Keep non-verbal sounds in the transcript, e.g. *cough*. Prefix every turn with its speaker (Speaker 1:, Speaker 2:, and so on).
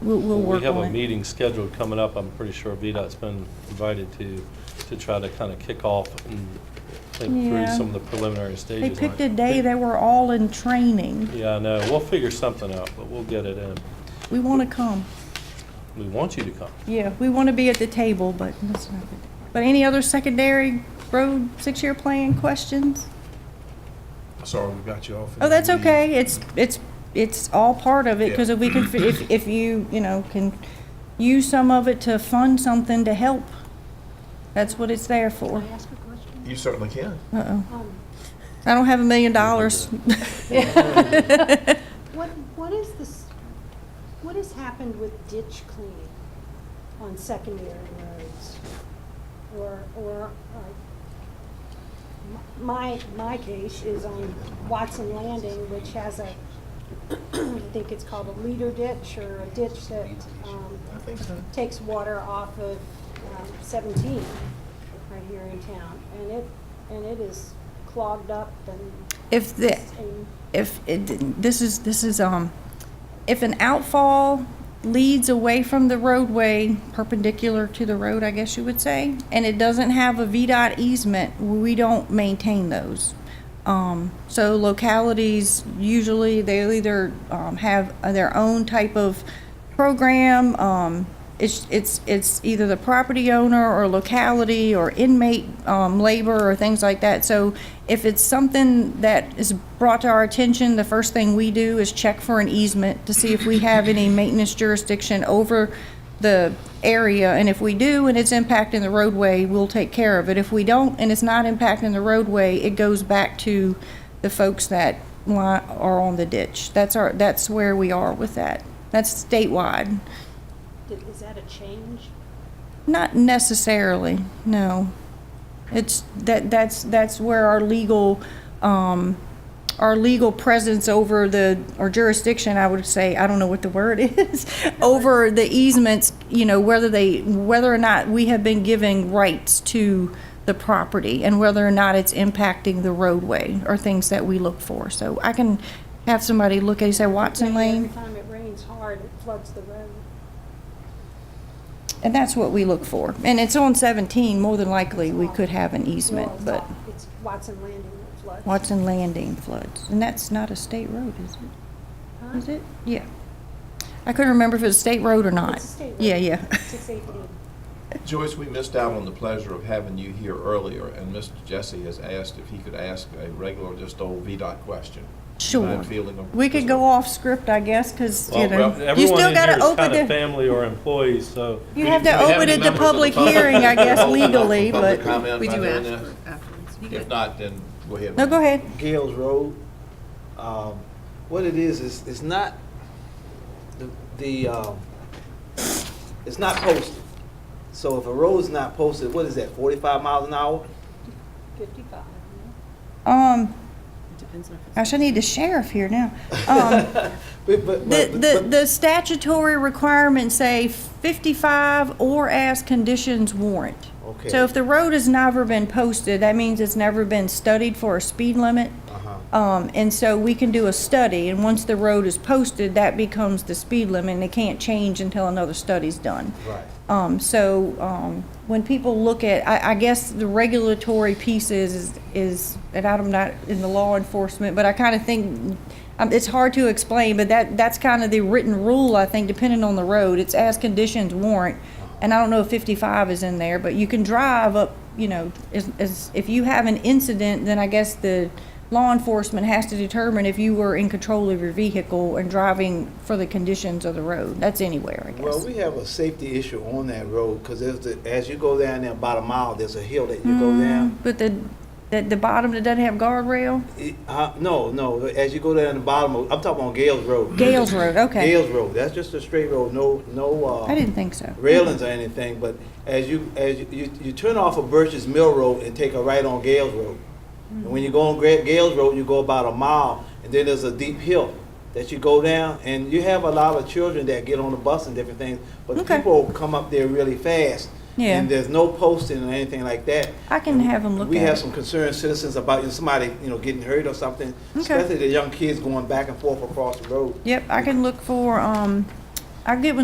Speaker 1: We'll, we'll work
Speaker 2: We have
Speaker 1: on
Speaker 2: a
Speaker 1: it.
Speaker 2: meeting scheduled coming up, I'm pretty sure VDOT's been invited to, to try to kind of kick off and think through
Speaker 1: Yeah.
Speaker 2: some of the preliminary
Speaker 1: They
Speaker 2: stages. on
Speaker 1: picked a
Speaker 2: it.
Speaker 1: day, they were all in training.
Speaker 2: Yeah, I know, we'll figure something out, but we'll get it in.
Speaker 1: We want to come.
Speaker 2: We want you to come.
Speaker 1: Yeah, we want to be at the table, but that's not good. But any other secondary road six-year plan questions?
Speaker 3: Sorry, we got you off.
Speaker 1: Oh, that's okay. It's, it's, it's all part of it, because if we can, fi- if, if you, you know, can use some of it to fund something to help, that's what it's there for.
Speaker 4: Can I ask a question?
Speaker 3: You certainly can.
Speaker 1: Uh-oh.
Speaker 4: Um,
Speaker 1: I don't have a million dollars.
Speaker 4: What, what is this, what has happened with ditch cleaning on secondary roads? Or, or, uh, my, my case is on Watson Landing, which has a, *clears throat* I think it's called a leader ditch or a ditch that, um,
Speaker 3: I think so.
Speaker 4: takes water off of um, 17 right here in town. And it, and it is clogged up and,
Speaker 1: *laughs* If the,
Speaker 4: and
Speaker 1: if it, didn't- this is, this is, um, if an outfall leads away from the roadway perpendicular to the road, I guess you would say, and it doesn't have a VDOT easement, we don't maintain those. Um, so localities, usually they'll either, um, have their own type of program, um, it's, it's, it's either the property owner or locality or inmate, um, labor or things like that. So if it's something that is brought to our attention, the first thing we do is check for an easement to see if we have any maintenance jurisdiction over the area. And if we do, and it's impacting the roadway, we'll take care of it. If we don't, and it's not impacting the roadway, it goes back to the folks that li- are on the ditch. That's our, that's where we are with that. That's statewide.
Speaker 4: did- is that a change?
Speaker 1: Not necessarily, no. It's, that, that's, that's where our legal, um, our legal presence over the, or jurisdiction, I would say, I don't know what the word *laughs* is, over the easements, you know, whether they, whether or not we have been giving rights to the property and whether or not it's impacting the roadway or things that we look for. So I can have somebody look at, you say Watson
Speaker 4: Every
Speaker 1: Lane,
Speaker 4: time it rains hard, it floods the road.
Speaker 1: and that's what we look for. And it's on seventeen, more than likely, we could have an
Speaker 4: No,
Speaker 1: easement,
Speaker 4: it's
Speaker 1: but.
Speaker 4: not. It's Watson Landing that floods.
Speaker 1: Watson Landing floods, and that's not a state road, is it?
Speaker 4: Huh?
Speaker 1: Is it? Yeah. I couldn't remember if it was a state road or not.
Speaker 4: It's a state road.
Speaker 1: Yeah, yeah.
Speaker 4: Six eighteen.
Speaker 3: Joyce, we missed out on the pleasure of having you here earlier, and Mr. Jesse has asked if he could ask a regular, just old VDOT question.
Speaker 1: *laughs* Sure.
Speaker 3: Mind fielding them?
Speaker 1: We could go off script, I guess, because, you
Speaker 2: Well,
Speaker 1: know,
Speaker 2: well,
Speaker 1: you
Speaker 2: everyone
Speaker 1: still
Speaker 2: in
Speaker 1: got
Speaker 2: here
Speaker 1: to
Speaker 2: is
Speaker 1: open
Speaker 2: kinda
Speaker 1: the,
Speaker 2: family or employees, so.
Speaker 1: you have to
Speaker 3: Do we have
Speaker 1: open
Speaker 3: any
Speaker 1: it to
Speaker 3: members of the
Speaker 1: public
Speaker 3: public?
Speaker 1: hearing, I
Speaker 3: *laughs*
Speaker 1: guess, legally,
Speaker 3: Public
Speaker 1: but,
Speaker 3: comment
Speaker 5: We
Speaker 3: by
Speaker 5: do
Speaker 3: doing
Speaker 5: ask
Speaker 3: that?
Speaker 5: for afterwards. You
Speaker 3: If
Speaker 5: could-
Speaker 3: not, then go ahead.
Speaker 1: no, go ahead.
Speaker 6: Gales Road. Um, what it is is it's not the the um, it's not posted. So if a road's not posted, what is that? Forty five miles an hour?
Speaker 4: Fifty-five.
Speaker 1: Um,
Speaker 5: it Depends on if it's.
Speaker 1: gosh, I need the sheriff here now.
Speaker 2: *laughs*
Speaker 1: Um,
Speaker 6: *laughs* But, but,
Speaker 1: The,
Speaker 6: but-
Speaker 1: the,
Speaker 6: but-
Speaker 1: the statutory requirements say fifty-five or as conditions warrant.
Speaker 6: Okay.
Speaker 1: So if the road has never been posted, that means it's never been studied for a speed limit.
Speaker 6: uh-huh.
Speaker 1: Um, and so we can do a study, and once the road is posted, that becomes the speed limit, and it can't change until another study's done.
Speaker 6: Right.
Speaker 1: Um, so, um, when people look at, I, I guess the regulatory piece is, is- is, and I'm not in the law enforcement, but I kind of think, um, it's hard to explain, but that, that's kind of the written rule, I think, depending on the road. It's as conditions warrant, and I don't know if fifty-five is in there, but you can drive up, you know, as, as, if you have an incident, then I guess the law enforcement has to determine if you were in control of your vehicle and driving for the conditions of the road. That's anywhere, I guess.
Speaker 6: Well, we have a safety issue on that road because there's the, as you go down there about a mile, there's a hill that you go
Speaker 1: Mm-hmm.
Speaker 6: down.
Speaker 1: Mm, But the, the, the bottom that doesn't have guardrail?
Speaker 6: It- uh, no, no. As you go down the bottom, of, I'm talking on Gales Road.
Speaker 1: Gales Road, okay.
Speaker 6: Gales Road. That's just a straight road. No, no. Uh,
Speaker 1: I didn't think so.
Speaker 6: railings or anything, but as you, as you, you, you turn off of Birch's Mill Road and take a right on Gales Road. And when you go on Gra- Gales Road, you go about a mile, and then there's a deep hill that you go down, and you have a lot of children that get on the bus and different things, but
Speaker 1: Okay.
Speaker 6: people come up there really fast.
Speaker 1: Yeah.
Speaker 6: And there's no posting or anything like that.
Speaker 1: I can have 'em look
Speaker 6: We
Speaker 1: at
Speaker 6: have
Speaker 1: it.
Speaker 6: some concerned citizens about, you know, somebody, you know, getting hurt or something,
Speaker 1: Okay.
Speaker 6: especially the young kids going back and forth across the road.
Speaker 1: Yep, I can look for, um, I get with